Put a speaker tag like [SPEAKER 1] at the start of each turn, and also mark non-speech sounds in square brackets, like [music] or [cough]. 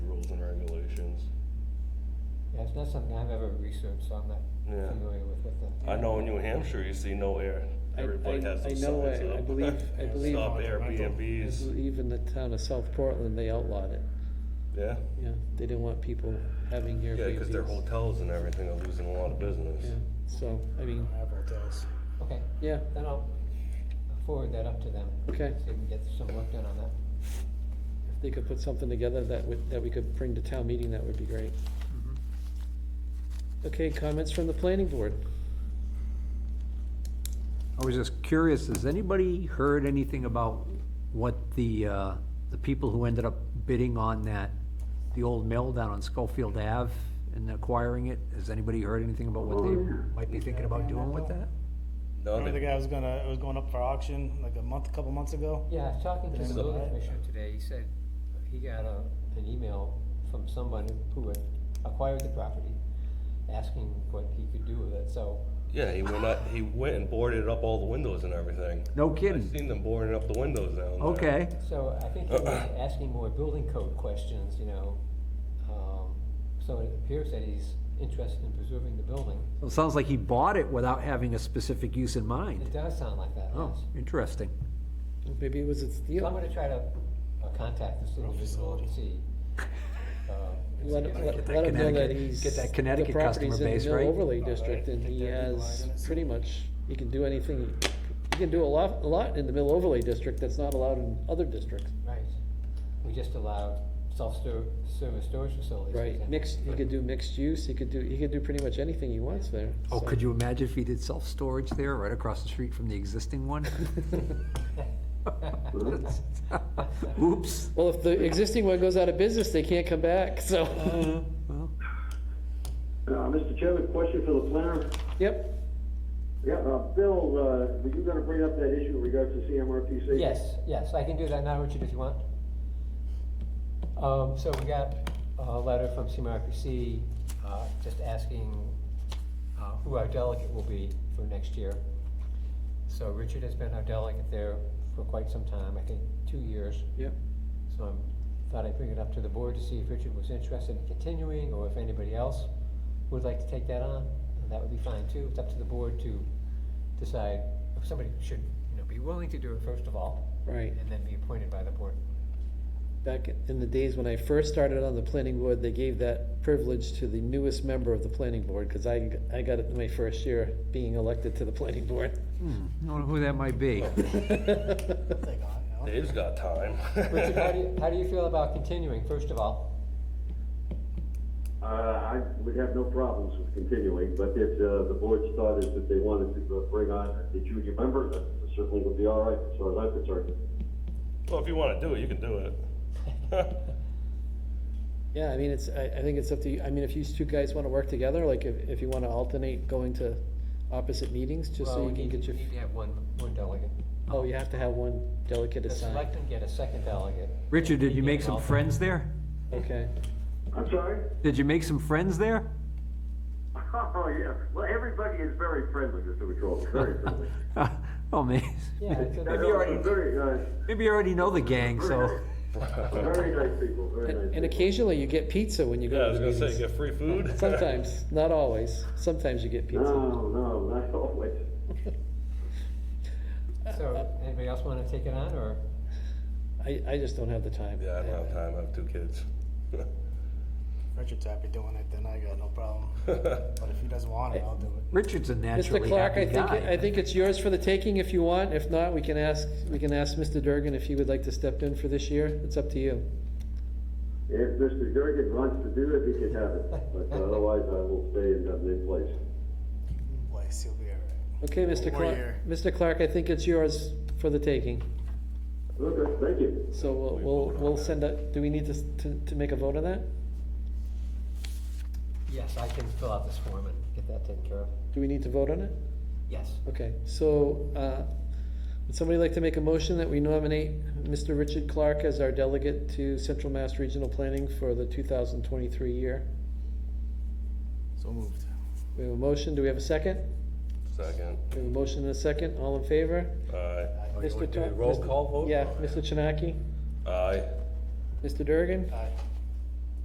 [SPEAKER 1] descriptions.
[SPEAKER 2] Yeah, it's not something I've ever researched, so I'm not
[SPEAKER 1] Yeah.
[SPEAKER 2] familiar with what the.
[SPEAKER 1] I know in New Hampshire, you see no air.
[SPEAKER 3] I-
[SPEAKER 1] Everybody
[SPEAKER 3] I-
[SPEAKER 1] has
[SPEAKER 3] I
[SPEAKER 1] those
[SPEAKER 3] know,
[SPEAKER 1] signs
[SPEAKER 3] I- I
[SPEAKER 1] up. [laughs]
[SPEAKER 3] believe- I believe-
[SPEAKER 1] Stop
[SPEAKER 3] I
[SPEAKER 1] Airbnbs,
[SPEAKER 3] believe in the town of South Portland, they outlawed it.
[SPEAKER 1] yeah?
[SPEAKER 3] Yeah, they didn't want people having Airbnbs.
[SPEAKER 1] Yeah, because their hotels and everything are losing a lot of
[SPEAKER 3] Yeah,
[SPEAKER 1] business.
[SPEAKER 3] so, I mean,
[SPEAKER 4] I have hotels.
[SPEAKER 2] Okay,
[SPEAKER 3] yeah,
[SPEAKER 2] then I'll forward that up to them.
[SPEAKER 3] Okay.
[SPEAKER 2] See if we can get some work done on that.
[SPEAKER 3] if they could put something together that would, that we could bring to town meeting, that would be great.
[SPEAKER 5] Mm-hmm.
[SPEAKER 3] Okay, comments from the planning board?
[SPEAKER 5] I was just curious, has anybody heard anything about what the, uh, the people who ended up bidding on that, the old mill down on Schofield Ave and acquiring it? Has anybody heard anything about what they might be thinking about doing with that?
[SPEAKER 1] No,
[SPEAKER 4] Remember the
[SPEAKER 1] they-
[SPEAKER 4] guy was gonna, it was going up for auction like a month, a couple months ago?
[SPEAKER 2] Yeah, I was talking to
[SPEAKER 4] Is
[SPEAKER 2] the
[SPEAKER 4] it
[SPEAKER 2] building
[SPEAKER 4] alright?
[SPEAKER 2] commissioner today, he said he got a, an email from someone who had acquired the property, asking what he could do with it, so,
[SPEAKER 1] yeah, he went up, he went and boarded up all the windows and everything.
[SPEAKER 5] No
[SPEAKER 1] I've
[SPEAKER 5] kidding?
[SPEAKER 1] seen them boarding up the windows down there.
[SPEAKER 5] Okay,
[SPEAKER 2] so I think he was
[SPEAKER 1] [coughs]
[SPEAKER 2] asking more building code questions, you know. Um, so it appears that he's interested in preserving the building.
[SPEAKER 5] well, it sounds like he bought it without having a specific use in
[SPEAKER 2] It
[SPEAKER 5] mind.
[SPEAKER 2] does sound like that,
[SPEAKER 5] Oh,
[SPEAKER 2] yes.
[SPEAKER 5] interesting.
[SPEAKER 3] Maybe it was its
[SPEAKER 2] So I'm
[SPEAKER 3] deal.
[SPEAKER 2] gonna try to uh, contact this individual and see. uh, and see
[SPEAKER 3] Let,
[SPEAKER 2] if I
[SPEAKER 3] let
[SPEAKER 2] can-
[SPEAKER 5] Get that
[SPEAKER 3] let him know that
[SPEAKER 5] Connecticut-
[SPEAKER 3] he's.
[SPEAKER 5] get that Connecticut customer base,
[SPEAKER 3] The property's in the
[SPEAKER 5] right?
[SPEAKER 3] mill overlay district and
[SPEAKER 4] Take
[SPEAKER 3] he
[SPEAKER 4] that big
[SPEAKER 3] has
[SPEAKER 4] line in it.
[SPEAKER 3] pretty much, he can do anything, he can do a lot, a lot in the mill overlay district that's not allowed in other districts.
[SPEAKER 2] Right. We just allowed self-service storage facilities. for
[SPEAKER 3] Right,
[SPEAKER 2] example.
[SPEAKER 3] mixed, he could do mixed use, he could do, he could do pretty much anything he wants there.
[SPEAKER 5] Oh,
[SPEAKER 3] so.
[SPEAKER 5] could you imagine if he did self-storage there, right across the street from the existing one? [laughs] Oops.
[SPEAKER 3] Well, if the existing one goes out of business, they can't come back, so,
[SPEAKER 5] Well,
[SPEAKER 6] Uh, Mr. Chairman, question for the planner.
[SPEAKER 3] yep,
[SPEAKER 6] Yeah, uh, Bill, uh, were you gonna bring up that issue in regards to CMRPC?
[SPEAKER 2] Yes, yes, I can do that now, Richard, if you want. Um, so we got a letter from CMRPC, uh, just asking, uh, who our delegate will be for next year. So Richard has been our delegate there for quite some time, I think two years.
[SPEAKER 3] yep.
[SPEAKER 2] So I thought I'd bring it up to the board to see if Richard was interested in continuing, or if anybody else would like to take that on, and that would be fine too. It's up to the board to decide if somebody should, you know, be willing to do it first of all,
[SPEAKER 3] Right,
[SPEAKER 2] and then be appointed by the
[SPEAKER 3] [coughs]
[SPEAKER 2] board.
[SPEAKER 3] back in the days when I first started on the planning board, they gave that privilege to the newest member of the planning board, because I, I got it in my first year being elected to the planning board. [laughs]
[SPEAKER 5] hmm, I don't know who that might be.
[SPEAKER 4] They got, you know?
[SPEAKER 1] Dave's got time.
[SPEAKER 2] Richard, how
[SPEAKER 1] [laughs]
[SPEAKER 2] do you, how do you feel about continuing, first of all?
[SPEAKER 6] Uh, I would have no problems with continuing, but if, uh, the board's thought is that they wanted to uh, bring on the junior member, that certainly would be all right, as far as I'm concerned.
[SPEAKER 1] Well, if you wanna do it, you can do it. [laughs]
[SPEAKER 3] Yeah, I mean, it's, I, I think it's up to you, I mean, if you two guys wanna work together, like, if, if you wanna alternate going to opposite meetings, just
[SPEAKER 2] Well,
[SPEAKER 3] so
[SPEAKER 2] we
[SPEAKER 3] you can
[SPEAKER 2] need-
[SPEAKER 3] get your,
[SPEAKER 2] Need to have one, one delegate.
[SPEAKER 3] oh, you have to have one delegate
[SPEAKER 2] The
[SPEAKER 3] assigned,
[SPEAKER 2] selectmen get a second delegate.
[SPEAKER 3] [laughs]
[SPEAKER 5] Richard, did you make some
[SPEAKER 2] Yeah.
[SPEAKER 5] friends there?
[SPEAKER 3] okay.
[SPEAKER 6] I'm sorry? [laughs]
[SPEAKER 5] Did you make some friends there? [laughs]
[SPEAKER 6] Oh, yeah, well, everybody is very friendly, Mr. Patrol,
[SPEAKER 3] [laughs]
[SPEAKER 6] very friendly.
[SPEAKER 5] Oh, man.
[SPEAKER 2] Yeah, it's a-
[SPEAKER 6] They're Very nice,
[SPEAKER 5] [laughs] Maybe you already know the gang, so.
[SPEAKER 3] [laughs]
[SPEAKER 6] very nice people, very nice.
[SPEAKER 3] And and
[SPEAKER 6] people.
[SPEAKER 3] occasionally you get pizza when you
[SPEAKER 1] Yeah, I
[SPEAKER 3] go
[SPEAKER 1] was
[SPEAKER 3] to
[SPEAKER 1] gonna
[SPEAKER 3] the
[SPEAKER 1] say,
[SPEAKER 3] meetings.
[SPEAKER 1] get free food?
[SPEAKER 3] Sometimes, not always, sometimes you get pizza.
[SPEAKER 6] No, no, not [laughs] always.
[SPEAKER 2] So, anybody else wanna take it on, or?
[SPEAKER 3] I, I just don't have the time.
[SPEAKER 1] [laughs] Yeah, I don't have time, I have two kids. [laughs]
[SPEAKER 4] Richard's happy doing it, then I got no problem. But if he doesn't want it, I'll do it.
[SPEAKER 5] Richard's a
[SPEAKER 3] Mr.
[SPEAKER 5] naturally
[SPEAKER 3] Clark, I
[SPEAKER 5] happy
[SPEAKER 3] think, I
[SPEAKER 5] guy.
[SPEAKER 3] think it's yours for the taking if you want, if not, we can ask, we can ask Mr. Durgan if he would like to step in for this year, it's up to you.
[SPEAKER 6] If Mr. Durgan wants to do it, he can have it, but otherwise I will stay in that mid place.
[SPEAKER 4] Place, he'll be all right.
[SPEAKER 3] Okay, Mr.
[SPEAKER 4] One
[SPEAKER 3] Clark,
[SPEAKER 4] year.
[SPEAKER 3] Mr. Clark, I think it's yours for the taking,
[SPEAKER 6] Okay, thank you.
[SPEAKER 3] so we'll, we'll, we'll send out, do we need to, s- to, to make a vote on that?
[SPEAKER 2] Yes, I can fill out this form and get that taken care of.
[SPEAKER 3] Do we need to vote on it?
[SPEAKER 2] Yes.
[SPEAKER 3] Okay, so, uh, would somebody like to make a motion that we nominate Mr. Richard Clark as our delegate to Central Mass Regional Planning for the two thousand twenty-three year?
[SPEAKER 4] So moved.
[SPEAKER 3] We have a motion, do we have a second?
[SPEAKER 1] Second,
[SPEAKER 3] We have a motion and a second, all in favor?
[SPEAKER 1] aye.
[SPEAKER 3] Mr.
[SPEAKER 5] do
[SPEAKER 3] Tur-
[SPEAKER 5] the roll
[SPEAKER 3] Mr.
[SPEAKER 5] call vote?
[SPEAKER 3] Yeah, Mr. Chinaki,
[SPEAKER 1] Aye.
[SPEAKER 3] Mr. Durgan,
[SPEAKER 4] Aye.